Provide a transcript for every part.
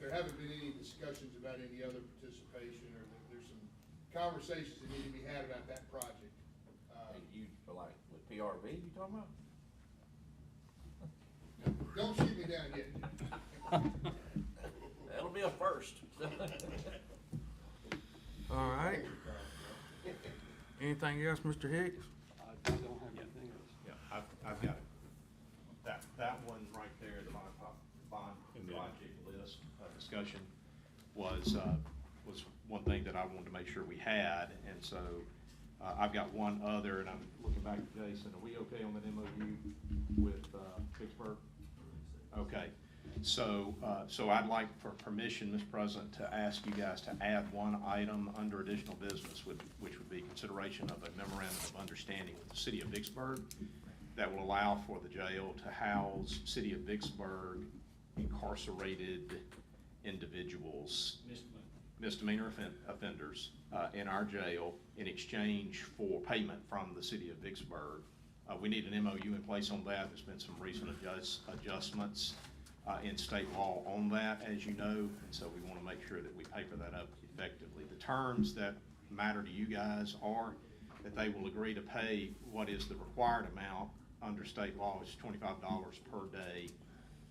there haven't been any discussions about any other participation, or there- there's some conversations that need to be had about that project. Uh, Hey, You, like, with PRV you talking about? Don't shoot me down yet. That'll be a first. All right. Anything else, Mr. Hicks? I don't have anything else. Yeah, I've, I've got it. That, that one right there, the bond, pro- bond project list, uh, discussion was, uh, was one thing that I wanted to make sure we had. And so, uh, I've got one other, and I'm looking back at Jason, are we okay on that MOU with, uh, Pittsburgh? Okay, so, uh, so I'd like for permission, Mr. President, to ask you guys to add one item under additional business, with- which would be consideration of a memorandum of understanding with the city of Vicksburg that will allow for the jail to house city of Vicksburg incarcerated individuals. Misdemeanor offen- offenders uh, in our jail in exchange for payment from the city of Vicksburg. Uh, We need an MOU in place on that. There's been some recent adjust- adjustments uh, in state law on that, as you know, and so we want to make sure that we paper that up effectively. The terms that matter to you guys are that they will agree to pay what is the required amount under state law, is twenty-five dollars per day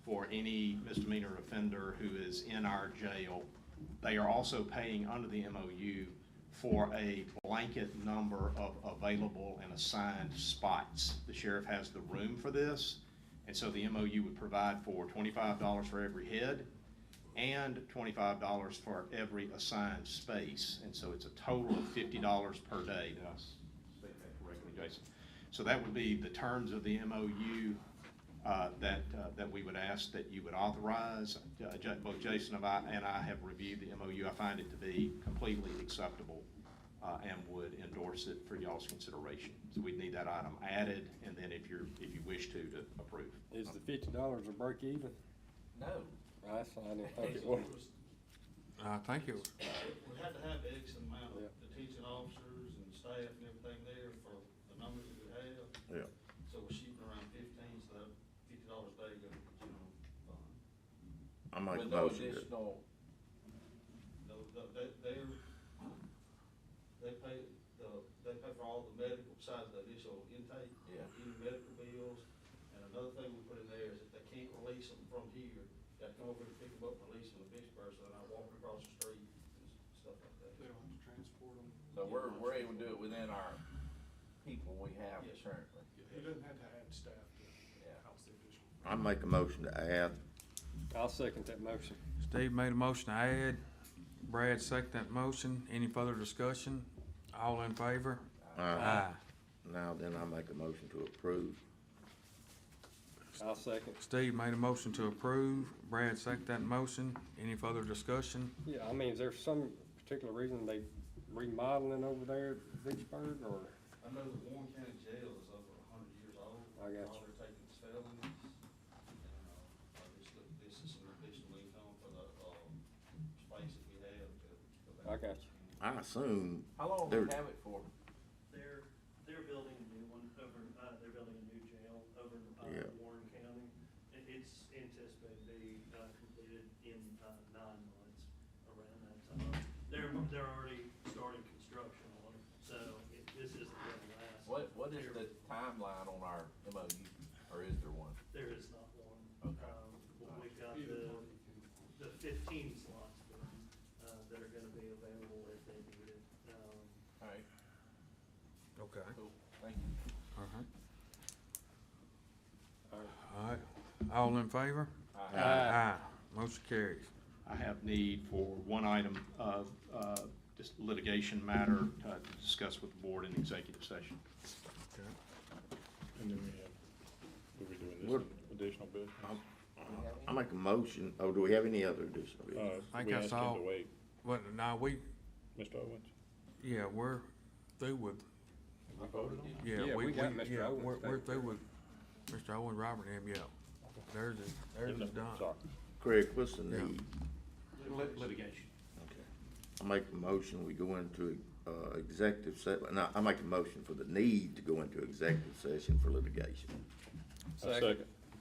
for any misdemeanor offender who is in our jail. They are also paying under the MOU for a blanket number of available and assigned spots. The sheriff has the room for this, and so the MOU would provide for twenty-five dollars for every head and twenty-five dollars for every assigned space, and so it's a total of fifty dollars per day. Did I s- state that correctly, Jason? So that would be the terms of the MOU uh, that, uh, that we would ask that you would authorize. Uh, Ja- Both Jason and I, and I have reviewed the MOU. I find it to be completely acceptable uh, and would endorse it for y'all's consideration. So we'd need that item added, and then if you're, if you wish to, to approve. Is the fifty dollars a break even? No. I signed it, think it was. I think it was, We had to have X amount Yeah. of detention officers and staff and everything there for the numbers that we have. Yeah. So we're shooting around fifteen, so that fifty dollars a day goes to the general fund. I make a With no motion. that- additional, No, the- they, they're, they pay, the, they pay for all the medical, besides the initial intake. Yeah. Any medical bills, and another thing we put in there is if they can't release them from here, they come over and pick them up, and release them to Vicksburg, so they're not walking across the street and stuff like that. They don't have to transport them. so we're, we're able to do it within our people we have Yes. currently, He doesn't have to add staff to yeah. house the additional. I make a motion to add, I'll second that motion. Steve made a motion to add, Brad seconded that motion. Any further discussion? All in favor? uh, now then I make a motion to approve. I'll second. Steve made a motion to approve, Brad seconded that motion. Any further discussion? Yeah, I mean, is there some particular reason they remodeling over there at Vicksburg or? I know the Warren County Jail is over a hundred years old. I got you. All they're taking is felonies. And, uh, I just look, this is some additional income for the, uh, space that we have to. to I got you. I assume, How long do we Dude. have it for? They're, they're building a new one over, uh, they're building a new jail over, Yeah. uh, Warren County. It, it's anticipated to be, uh, completed in, uh, nine months around that time. They're, they're already starting construction on it, so it, this isn't gonna last. What, what is the There- timeline on our MOU, or is there one? There is not one. Okay. Um, we've got the, the fifteen slots, uh, that are gonna be available if they need it. Um, All right, Okay. cool, thank you. All right. All right, all in favor? All right. Aye. Motion carries. I have need for one item of uh, just litigation matter uh, to discuss with the board in executive session. And then we have, what are we doing, this What- one? additional business? uh, I make a motion, oh, do we have any other additional business? Uh, I think we I asked saw- him to wait, Well, now we, Mr. Owens. yeah, we're through with, yeah, Yeah, we, we we, got Mr. yeah, Owens we're, we're back through with Mr. Owen, Robert, and him, yeah. Theirs is, theirs is done. Sorry. Craig, what's the Yeah. need? Litigation. I make a motion, we go into, uh, executive se, no, I make a motion for the need to go into executive session for litigation. I second.